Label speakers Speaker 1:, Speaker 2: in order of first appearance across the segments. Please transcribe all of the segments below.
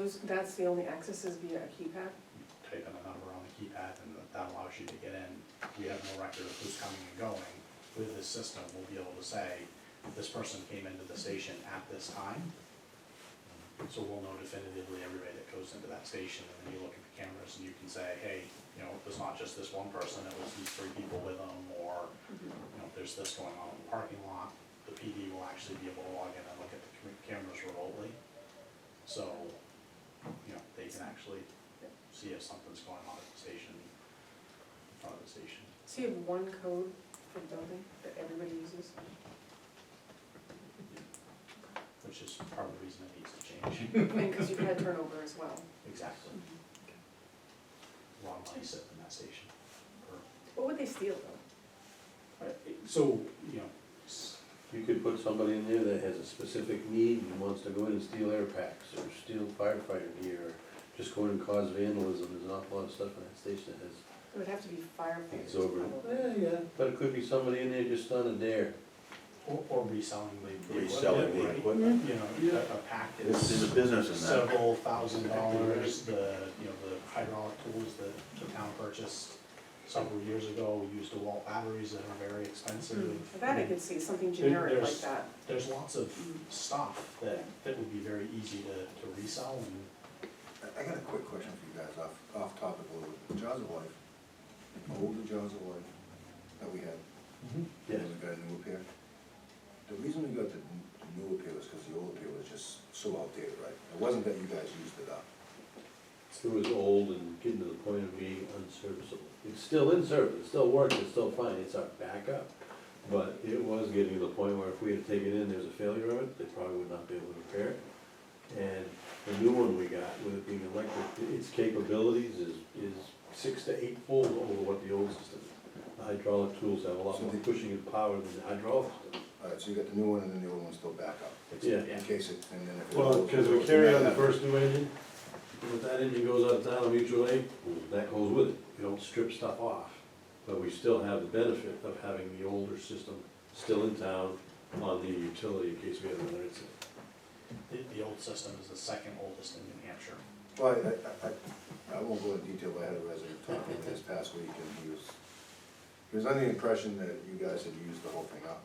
Speaker 1: those, that's the only access is via a keypad?
Speaker 2: type in a number on the keypad and that- that allows you to get in. We have no record of who's coming and going. With this system, we'll be able to say, this person came into the station at this time. So we'll know definitively everybody that goes into that station and then you look at the cameras and you can say, hey, you know, it was not just this one person, it was these three people with them or, you know, there's this going on in the parking lot. The PD will actually be able to log in and look at the cam- cameras remotely. So, you know, they can actually see if something's going on at the station, in front of the station.
Speaker 1: So you have one code for the building that everybody uses?
Speaker 2: Which is part of the reason it needs to change.
Speaker 1: I mean, because you've had turnover as well.
Speaker 2: Exactly. A lot of money sitting in that station. for-
Speaker 1: What would they steal though?
Speaker 2: but it- So, you know, s-
Speaker 3: You could put somebody in there that has a specific need and wants to go in and steal air packs or steal firefighter gear, or just go in and cause vandalism, there's an awful lot of stuff in that station that has,
Speaker 1: It would have to be firefighters
Speaker 3: it's over.
Speaker 1: probably.
Speaker 3: Yeah, yeah, but it could be somebody in there just on a dare.
Speaker 2: or, or reselling the. the
Speaker 4: Reselling the
Speaker 2: equipment, right?
Speaker 4: equipment.
Speaker 2: You know, a- a pack
Speaker 4: There's a
Speaker 2: is
Speaker 4: business in that.
Speaker 2: several thousand dollars, the, you know, the hydraulic tools that the town purchased several years ago, used to wall batteries that are very expensive.
Speaker 1: For Hmm, that I could see, something
Speaker 2: There-
Speaker 1: generic like
Speaker 2: there's-
Speaker 1: that.
Speaker 2: there's lots of stuff that, that would be very easy to, to resell and
Speaker 5: I I got a quick question for you guys, off, off topic a little bit. Jaws of Life, the older Jaws of Life that we had,
Speaker 3: Yes,
Speaker 5: when we got a new appear. The reason we got the n- new appear was because the old appear was just so outdated, right? It wasn't that you guys used it up.
Speaker 3: it was old and getting to the point of being unserviceable. It's still in service, it still works, it's still fine, it's our backup, but it was getting to the point where if we had taken in, there's a failure of it, they probably would not be able to repair it. And the new one we got, with it being electric, its capabilities is, is six to eight fold over what the old system is. The hydraulic tools have a lot more pushing and power than the hydraulic system.
Speaker 5: All right, so you got the new one and then the old one's still back up.
Speaker 3: Yeah.
Speaker 5: In case it, and then if it.
Speaker 3: Well,
Speaker 5: goes-
Speaker 3: because we
Speaker 5: goes
Speaker 3: carry
Speaker 5: back
Speaker 3: on the
Speaker 5: up.
Speaker 3: first new engine, and if that engine goes out of town on mutual aid, well, that goes with it, we don't strip stuff off. But we still have the benefit of having the older system still in town on the utility in case we have another incident.
Speaker 2: the, the old system is the second oldest in New Hampshire.
Speaker 5: Well, I, I, I, I won't go into detail, but I had a resident talk to me this past week and he was, he was under the impression that you guys had used the whole thing up.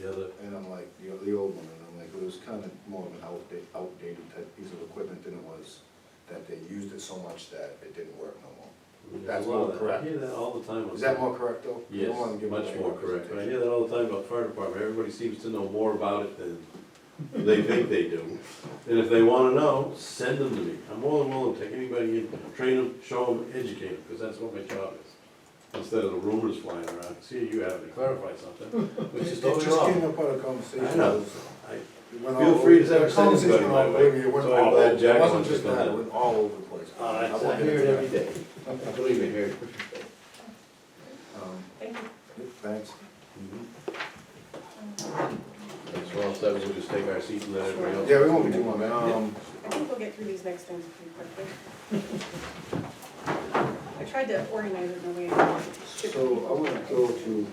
Speaker 3: The other,
Speaker 5: And I'm like, you know, the old one, and I'm like, it was kind of more of an outdated, outdated type piece of equipment than it was, that they used it so much that it didn't work no more.
Speaker 3: there's
Speaker 5: That's
Speaker 3: a lot
Speaker 5: more
Speaker 3: of that, I
Speaker 5: correct.
Speaker 3: hear that all the time. on
Speaker 5: Is that
Speaker 3: TV.
Speaker 5: more correct though? You don't wanna
Speaker 3: Yes,
Speaker 5: give
Speaker 3: much
Speaker 5: away
Speaker 3: more
Speaker 5: your
Speaker 3: correct, but I hear
Speaker 5: presentation.
Speaker 3: that all the time about fire department, everybody seems to know more about it than they think they do. And if they wanna know, send them to me, I'm more than willing to take anybody in, train them, show them, educate them, because that's what my job is. Instead of the rumors flying around, see, you have to clarify something, which is
Speaker 5: It
Speaker 3: totally
Speaker 5: just came
Speaker 3: wrong.
Speaker 5: up on a conversation.
Speaker 3: I know.
Speaker 5: It
Speaker 3: I-
Speaker 5: went
Speaker 3: Feel
Speaker 5: all
Speaker 3: free to
Speaker 5: over-
Speaker 3: send
Speaker 5: the
Speaker 3: us
Speaker 5: conversation
Speaker 3: anybody,
Speaker 5: went
Speaker 3: by
Speaker 5: all
Speaker 3: the way.
Speaker 5: over- It went
Speaker 3: So I'm
Speaker 5: all
Speaker 3: glad
Speaker 5: over.
Speaker 3: Jack
Speaker 5: It wasn't
Speaker 3: wants to
Speaker 5: just
Speaker 3: come
Speaker 5: that, it
Speaker 3: in.
Speaker 5: went all over the place.
Speaker 3: I
Speaker 5: won't
Speaker 3: I
Speaker 5: get
Speaker 3: hear it
Speaker 5: into
Speaker 3: every
Speaker 5: that.
Speaker 3: day, I don't even hear it.
Speaker 5: Um,
Speaker 1: Thank you.
Speaker 5: yeah, Thanks. Mm-hmm.
Speaker 3: So all set, we'll just take our seat and let everybody else.
Speaker 5: Yeah, we won't be too long, man. Um,
Speaker 1: I think we'll get through these next things pretty quickly. I tried to organize it in a way.
Speaker 5: So I want to go to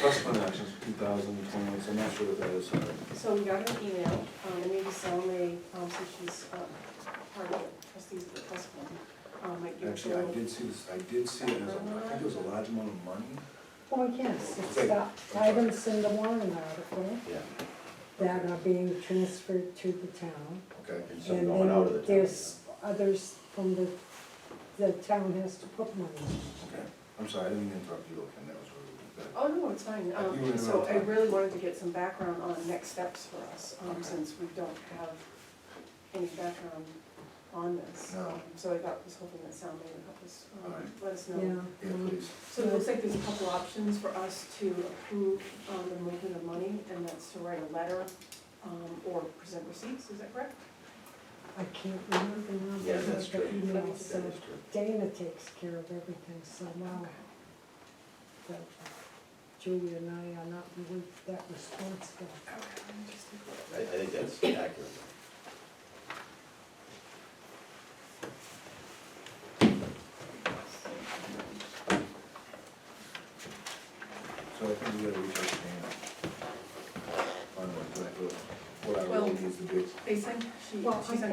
Speaker 5: trust fund actions two thousand twenty, so I'm not sure what that is, sorry.
Speaker 1: So we got an email, um, and maybe Sal may, um, since she's, um, part of the trustees of the trust fund, um, might give us a
Speaker 5: Actually, I
Speaker 1: little.
Speaker 5: did see this, I did see it, as a- I think it was a large amount of money.
Speaker 6: Oh, yes, it's the items in the warrant article
Speaker 4: Yeah,
Speaker 6: that are being transferred to the town.
Speaker 5: Okay,
Speaker 4: and some
Speaker 6: And
Speaker 4: going out of the
Speaker 6: then
Speaker 4: town.
Speaker 6: there's others from the, the town has to put money.
Speaker 5: okay, I'm sorry, I didn't mean to interrupt you, Ken, that was really good.
Speaker 1: Oh, no, it's fine,
Speaker 5: I do
Speaker 1: um,
Speaker 5: remember
Speaker 1: so I
Speaker 5: that.
Speaker 1: really wanted to get some background on next steps for us, um, since we don't have any background on this.
Speaker 5: No.
Speaker 1: Um, So I got, was hoping that Sal may help us, um,
Speaker 5: Alright.
Speaker 1: let us know.
Speaker 6: Yeah.
Speaker 5: Yeah, please.
Speaker 1: So it looks like there's a couple options for us to approve um, the movement of money, and that's to write a letter um, or present receipts, is that correct?
Speaker 6: I can't remember now,
Speaker 4: Yeah,
Speaker 6: but
Speaker 4: that's
Speaker 6: the
Speaker 4: true.
Speaker 6: email
Speaker 1: That
Speaker 6: said
Speaker 4: true.
Speaker 6: Dana takes care of everything, so
Speaker 1: Oh.
Speaker 6: now that Julia and I are not really that responsible.
Speaker 1: Okay, let me just take a
Speaker 4: I,
Speaker 1: look.
Speaker 4: I think that's accurate.
Speaker 5: So I think we gotta reach out to Dana. Find out what- what our
Speaker 1: Well-
Speaker 5: role needs to be.
Speaker 1: They sent, she,
Speaker 6: Well,
Speaker 1: she
Speaker 6: I
Speaker 1: sent